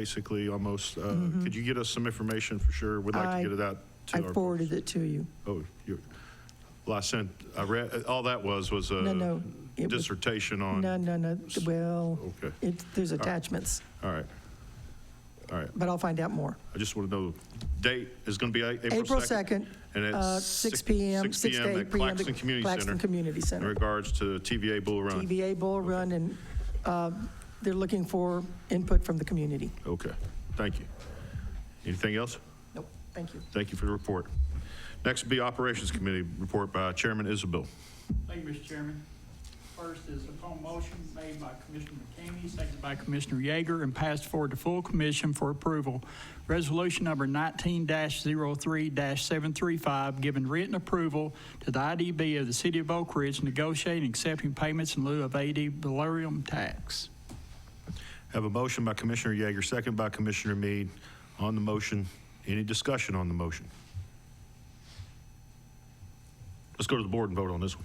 basically almost, uh, could you get us some information for sure? We'd like Mm-hmm. I- to get it out to I our. forwarded it to you. Oh, you, well, I sent, I read, all that was, was No, a no, it was- dissertation on. No, no, no, well, Okay. it, there's attachments, All right. All right. but I'll find out more. I just want to know, date is going to be A- April 2nd, And uh, it's. six PM, 6 6 to 8 PM. at Claxton Community Claxton Center Community in Center. regards to TVA Bull Run. TVA Bull Run, and uh, they're looking for input from the community. Okay, thank you. Anything else? Nope, thank you. Thank you for the report. Next will be Operations Committee report by Chairman Isabel. Thank you, Mr. Chairman. First is upon motion made by Commissioner McKamey, seconded by Commissioner Yeager, and passed forward to full commission for approval. Resolution number nineteen 3 seven three five, giving written approval to the IDB of the City of Oak Ridge negotiating and accepting payments in lieu of AD valerium tax. Have a motion by Commissioner Yeager, second by Commissioner Mead. On the motion, any discussion on the motion? Let's go to the board and vote on this one.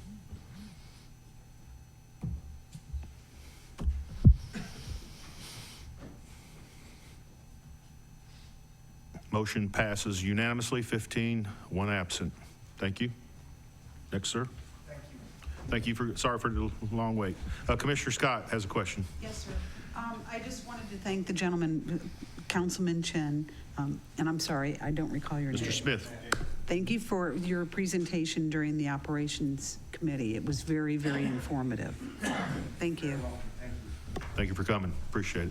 Motion passes unanimously, 15, one absent. Thank you. Next, sir. Thank you for, sorry for the long wait. Uh, Commissioner Scott has a question. Yes, sir. Um, I just wanted to thank the gentleman, Councilman Chen, um, and I'm sorry, I don't recall your name. Mr. Smith. Thank you for your presentation during the Operations Committee. It was very, very informative. Thank you. Thank you for coming. Appreciate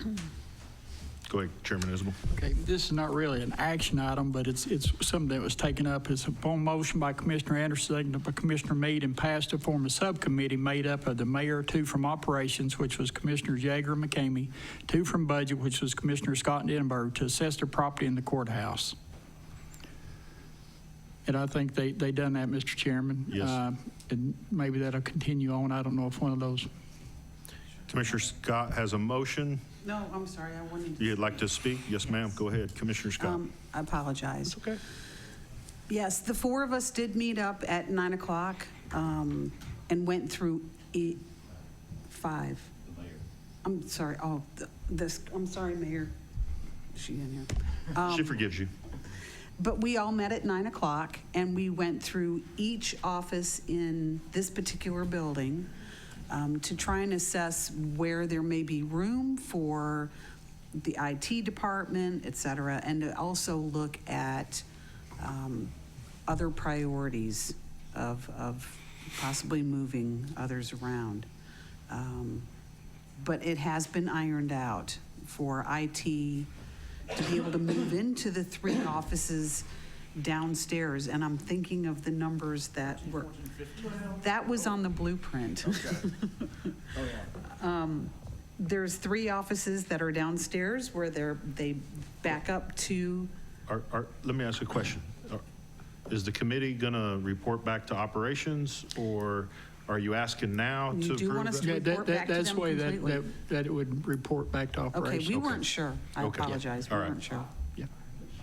it. Go ahead, Chairman Isabel. Okay, this is not really an action item, but it's, it's something that was taken up. It's upon motion by Commissioner Anderson, seconded by Commissioner Mead, and passed to form a subcommittee made up of the mayor, two from operations, which was Commissioner Jager and McCamey, two from budget, which was Commissioner Scott and Edinburgh, to assess the property in the courthouse. And I think they, they done that, Mr. Chairman. Yes. Uh, And maybe that'll continue on. I don't know if one of those Commissioner Scott has a motion. No, I'm sorry, I wanted to. You'd like to speak? Yes, ma'am. Go ahead, Commissioner Scott. Um, I apologize. Okay. Yes, the four of us did meet up at 9 o'clock um, and went through E, 5. I'm sorry, oh, th- this, I'm sorry, Mayor. She in here. um, She forgives you. But we all met at 9 o'clock, and we went through each office in this particular building um, to try and assess where there may be room for the IT department, et cetera, and to also look at um, other priorities of, of possibly moving others around. Um, But it has been ironed out for IT to be able to move into the three offices downstairs, and I'm thinking of the numbers that were, that was on the blueprint. Um, There's three offices that are downstairs where they're, they back up to, Are- are- Let me ask you a question. Are- Is the committee going to report back to operations, or are you asking now You to do approve want us it? to- Yeah, that- report back that- to That's them the way that, completely. that that it would report back to okay, operations. we weren't sure. I Okay. apologize, we All right. weren't sure. Yeah.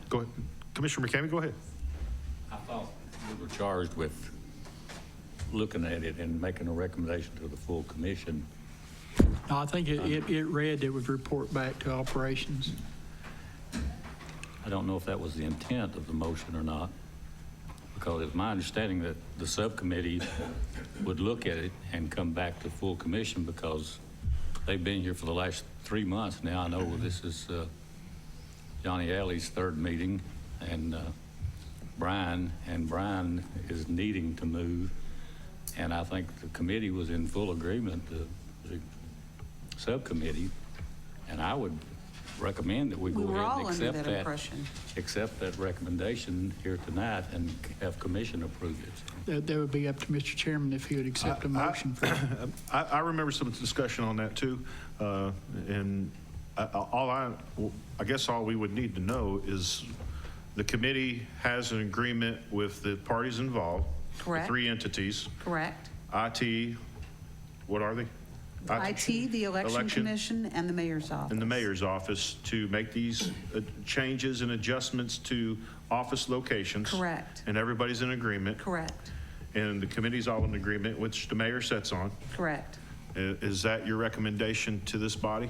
Go ahead. Commissioner McCamey, go ahead. I thought we were charged with looking at it and making a recommendation to the full commission. No, I think it, it, it read it would report back to operations. I don't know if that was the intent of the motion or not, because it's my understanding that the subcommittee would look at it and come back to full commission because they've been here for the last three months now. I know this is uh, Johnny Alley's third meeting, and uh, Brian, and Brian is needing to move. And I think the committee was in full agreement, the the subcommittee, and I would recommend that we We go were ahead all and under accept that impression. accept that recommendation here tonight and have commission approve it. That, that would be up to Mr. Chairman if he would accept a I- motion for that. Um, I, I remember some discussion on that too, uh, and I- I- all I, well, I guess all we would need to know is the committee has an agreement with the parties involved. the Correct. Three entities, Correct? IT, what are they? IT, the Election Election. Commission, and the Mayor's Office. And the mayor's office to make these uh, changes and adjustments to office locations. Correct. And everybody's in agreement, Correct, and the committee's all in agreement, which the mayor sets on. correct. I- Is that your recommendation to this body?